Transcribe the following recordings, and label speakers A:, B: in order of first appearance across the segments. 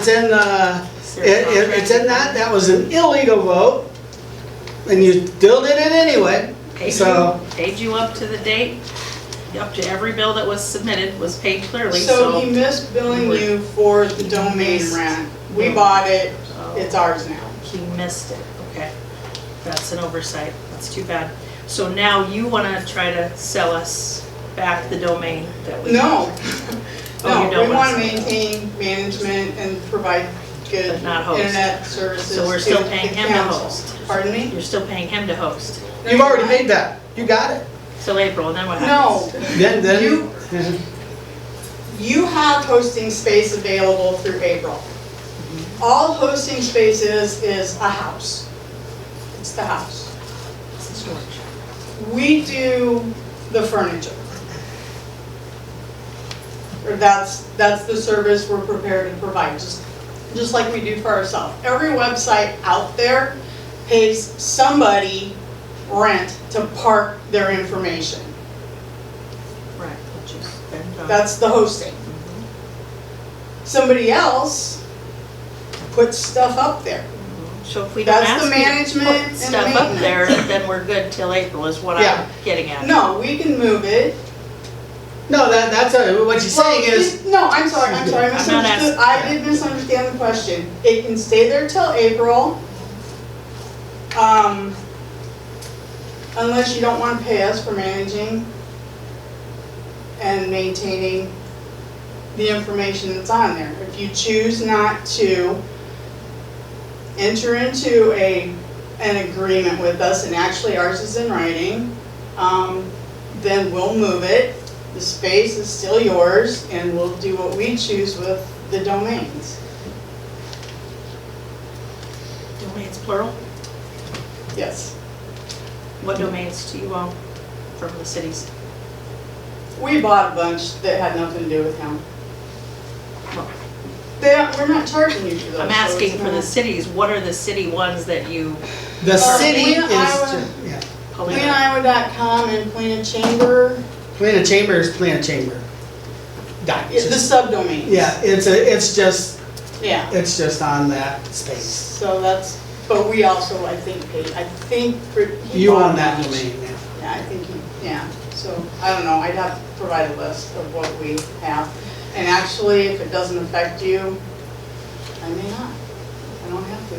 A: It's in, uh, it, it- it's in that, that was an illegal vote, and you still did it anyway.
B: Paid you,
A: So-
B: paid you up to the date, up to every bill that was submitted was paid clearly,
C: So
B: so.
C: he missed billing you for the domain rent. We bought it,
B: so
C: it's ours now.
B: He missed it, okay. That's an oversight, that's too bad. So now you wanna try to sell us back the domain that we.
C: No,
B: Oh, you
C: no,
B: don't
C: we want to
B: want us.
C: maintain management and provide good
B: But not host.
C: internet services.
B: So we're still
C: to
B: paying
C: the
B: him to
C: council.
B: host.
C: Pardon me?
B: You're still paying him to host
A: You've already made that, you got it.
B: till April, and then what
C: No,
B: happens?
A: Then,
C: You-
A: then,
C: you have hosting space available through April.
B: Mm-hmm.
C: All hosting space is, is a house. It's the house.
B: It's storage.
C: We do the furniture. Or that's, that's the service we're prepared to provide, just, just like we do for ourselves. Every website out there pays somebody rent to park their information.
B: Right, which is then, uh,
C: That's the hosting. Somebody else puts stuff up there.
B: So if we don't
C: that's
B: ask
C: the
B: you to
C: management
B: put
C: and
B: stuff up there,
C: maintenance.
B: then we're good till April is what
A: Yeah.
B: I'm getting at.
C: No, we can move it.
A: no, that, that's, a- what you're saying
C: Well,
A: is,
C: it- No, I'm sorry, I'm sorry, I
B: I'm not asking.
C: misunderstood, I did misunderstand the question. It can stay there till April. Um, unless you don't wanna pay us for managing and maintaining the information that's on there. If you choose not to enter into a, an agreement with us, and actually ours is in writing, um, then we'll move it the space is still yours and we'll do what we choose with the domains.
B: Domains plural?
C: Yes.
B: What domains do you own from the cities?
C: We bought a bunch that had nothing to do with him.
B: Well-
C: They, we're not charging you for those.
B: I'm
C: so
B: asking
C: it's
B: for the
C: not-
B: cities, what are the city ones that you?
A: the
C: Uh,
A: city
C: Lena,
A: is,
C: Iowa.
A: ju- yeah.
C: PlanIowa.com and Plan Chamber,
A: Plan of chamber is plan of chamber. Dot,
C: it's the
A: just-
C: subdomains.
A: yeah, it's a, it's just,
C: Yeah,
A: it's just on that space.
C: so that's, but we also, I think, paid, I think. for- he
A: You
C: bought
A: own that
C: each.
A: domain now.
C: Yeah, I think, he- yeah, so, I don't know, I'd have to provide a list of what we have. And actually, if it doesn't affect you, I may not, I don't have to.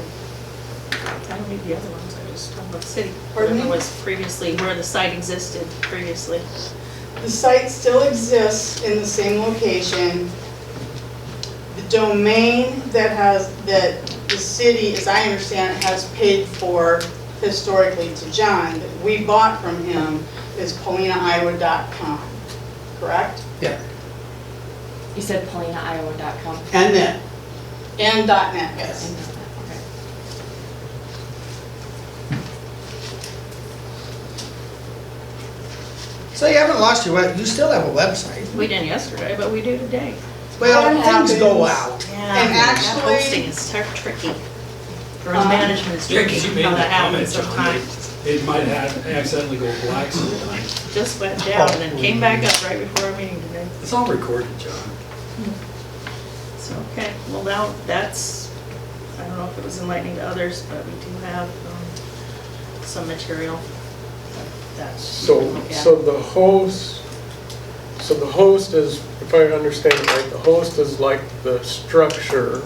B: I don't need the other ones, I just talk about city.
C: Pardon me?
B: Whatever was previously, where the site existed previously.
C: The site still exists in the same location. The domain that has, that the city, as I understand, it, has paid for historically to John, that we bought from him, is paulinaiowa.com, correct?
A: Yeah,
D: You said PaulinaIowa.com.
A: and then,
C: And .net, yes.
D: Okay.
A: so you haven't lost your, web. you still have a website.
B: We didn't yesterday, but we do today.
C: That
A: Well, things go
C: happens.
A: out.
B: Yeah.
C: And
B: That
C: actually-
B: hosting is ter- tricky. Or
C: Um,
B: management is
E: Yeah,
B: tricky,
E: 'cause you made
B: how that
E: that comment,
B: happens
E: John, that
B: sometimes.
E: it might have accidentally go black sometime.
B: Just went down and then came back up right before our meeting today.
E: It's all recorded, John.
B: So, okay, well, now, that's, I don't know if it was enlightening to others, but we do have um, some material that's.
F: So, so the host, so the host is, if I understand it right, the host is like the structure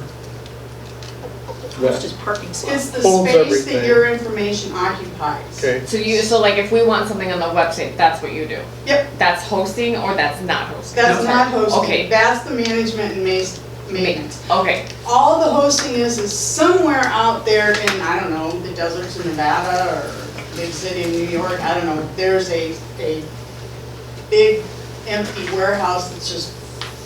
B: It's
F: that,
B: just parking
C: It's
B: slots.
C: the
F: Holds
C: space that
F: everything.
C: your information occupies.
F: okay?
D: So you, so like if we want something on the website, that's what you do?
C: Yep.
D: That's hosting or that's not hosting?
C: That's not hosting,
D: Okay.
C: that's the management and mas- maintenance.
D: Okay,
C: All the hosting is, is somewhere out there in, I don't know, the deserts of Nevada or big city of New York, I don't know. There's a, a big empty warehouse that's just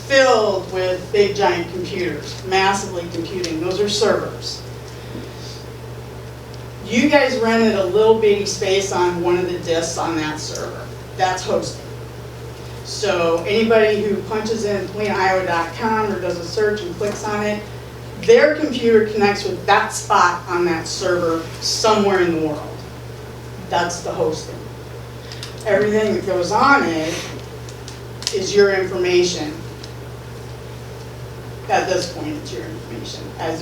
C: filled with big giant computers, massively computing, those are servers. You guys rented a little bitty space on one of the disks on that server, that's hosting. So anybody who punches in cleaniowa.com or does a search and clicks on it, their computer connects with that spot on that server somewhere in the world. That's the hosting. Everything that goes on it is your information. at this point, it's your information, as